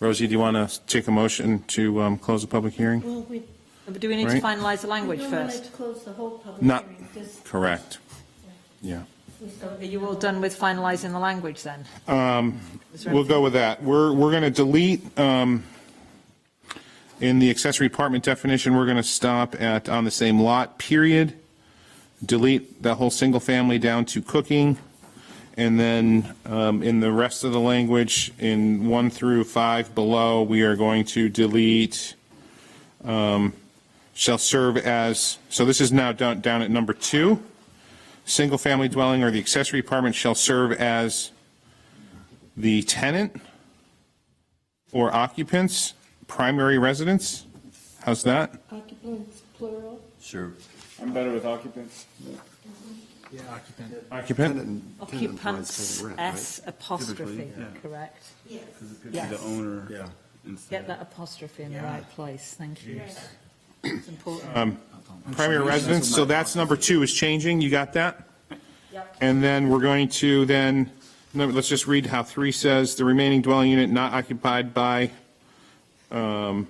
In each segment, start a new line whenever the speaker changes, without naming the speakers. Rosie, do you want to take a motion to um, close the public hearing?
Well, we,
But do we need to
Right.
finalize the language
we don't want to
first?
close the whole public
Not,
hearing. just-
correct. Yeah.
we start-
Are you all done with finalizing the language then?
Um,
Is there
We'll go with that. We're, we're going to delete, um, in the accessory apartment definition, we're going to stop at on the same lot, period. Delete the whole single family down to cooking. And then um, in the rest of the language, in one through five below, we are going to delete, um, shall serve as, so this is now down, down at number two. Single-family dwelling or the accessory apartment shall serve as the tenant or occupants, primary residence. How's that?
Occupants plural,
Sure.
I'm better with occupants.
Yeah, occupant.
Occupant?
Occupants S apostrophe,
Typically,
correct?
yes.
Yes.
The owner.
Yeah.
instead
Get
of-
that apostrophe in the
Yeah.
right place, thank you.
Yes.
It's important.
Um, Primary residence, so that's number two is changing, you got that?
Yep.
And then we're going to then, no, let's just read how three says, the remaining dwelling unit not occupied by, um,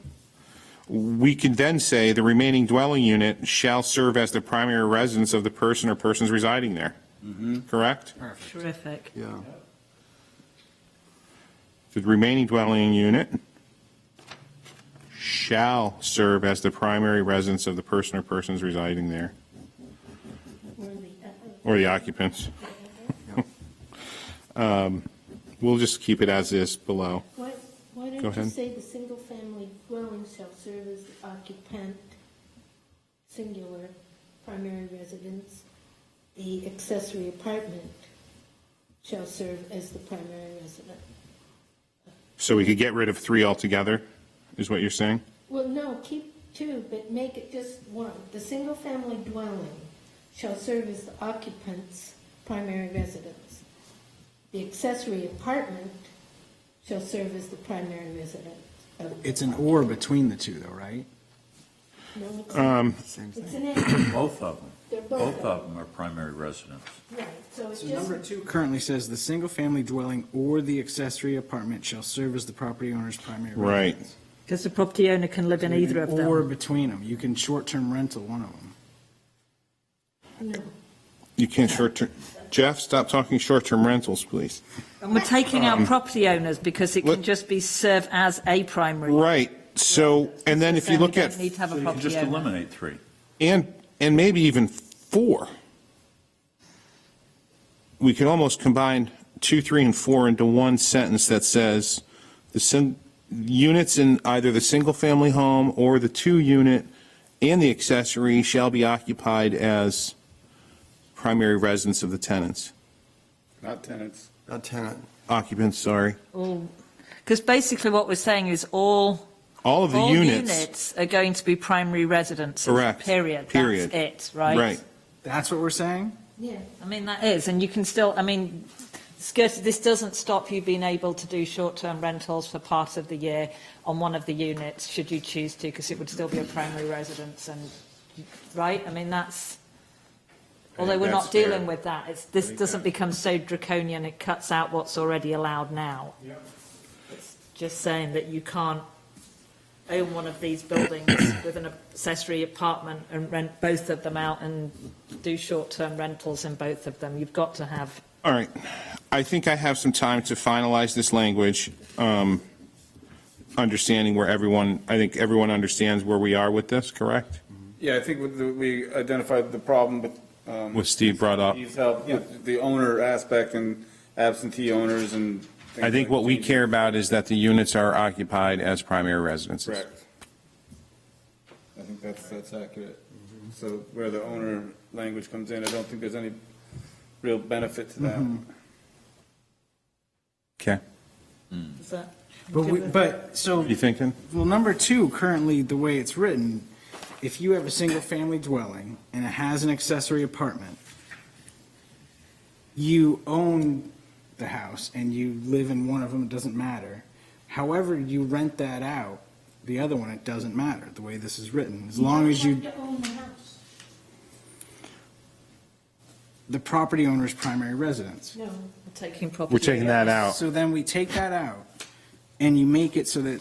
we could then say the remaining dwelling unit shall serve as the primary residence of the person or persons residing there. Correct?
Terrific.
Yeah.
The remaining dwelling unit shall serve as the primary residence of the person or persons residing there,
Where the, uh,
or the occupants. Um, We'll just keep it as is below.
Why, why
Go
don't you
ahead.
say the single-family dwelling shall serve as the occupant, singular, primary residence? The accessory apartment shall serve as the primary residence.
So we could get rid of three altogether, is what you're saying?
Well, no, keep two, but make it just one. The single-family dwelling shall serve as the occupant's primary residence. The accessory apartment shall serve as the primary residence. of-
It's an or between the two though, right?
No, it's not.
Um,
Same
It's
thing.
an and,
Both of them.
they're both.
Both of them are primary residents.
Right, so it's
So number
just,
two currently says the single-family dwelling or the accessory apartment shall serve as the property owner's primary
Right.
residence.
Because the property owner can live in either of
Or
them.
between them. You can short-term rental one of them.
no,
You can't short-term, Jeff, stop talking short-term rentals, please.
And we're taking out property owners because it
Um, let-
can just be serve as a primary.
Right, so, and then if you
So we
look at,
don't Need to have
So
a
you can
property
just
owner.
eliminate three.
and, and maybe even four, we could almost combine two, three, and four into one sentence that says, the sin, units in either the single-family home or the two-unit and the accessory shall be occupied as primary residence of the tenants,
Not tenants.
Not tenant.
occupants, sorry.
Because basically what we're saying is all
All of the
All
units,
are going to be primary residences.
Correct.
Period.
Period.
That's it, right?
right.
That's what we're saying?
yeah.
I mean, that is, and you can still, I mean, skirted, this doesn't stop you being able to do short-term rentals for part of the year on one of the units, should you choose to, because it would still be a primary residence and, right? I mean, that's, although we're not
that's fair.
dealing with that, it's, this doesn't become so draconian, it cuts out what's already allowed now. It's Just saying that you can't own one of these buildings with an accessory apartment and rent both of them out and do short-term rentals in both of them. You've got to have,
All right. I think I have some time to finalize this language, um, understanding where everyone, I think everyone understands where we are with this, correct?
Yeah, I think with the- we identified the problem with. um,
What Steve brought up.
Steve's help, with the owner aspect and absentee owners and. things
I think
like
what we
that.
care about is that the units are occupied as primary residences.
Correct. I think that's, that's accurate. So where the owner language comes in, I don't think there's any real benefit to that.
Okay.
is that?
But we, but, so.
You thinking?
Well, number two, currently, the way it's written, if you have a single-family dwelling and it has an accessory apartment, you own the house and you live in one of them, it doesn't matter. However you rent that out, the other one, it doesn't matter, the way this is written. As long as
don't
you,
have to own the house.
the property owner's primary residence.
No,
Taking property.
We're taking that out.
So then we take that out and you make it so that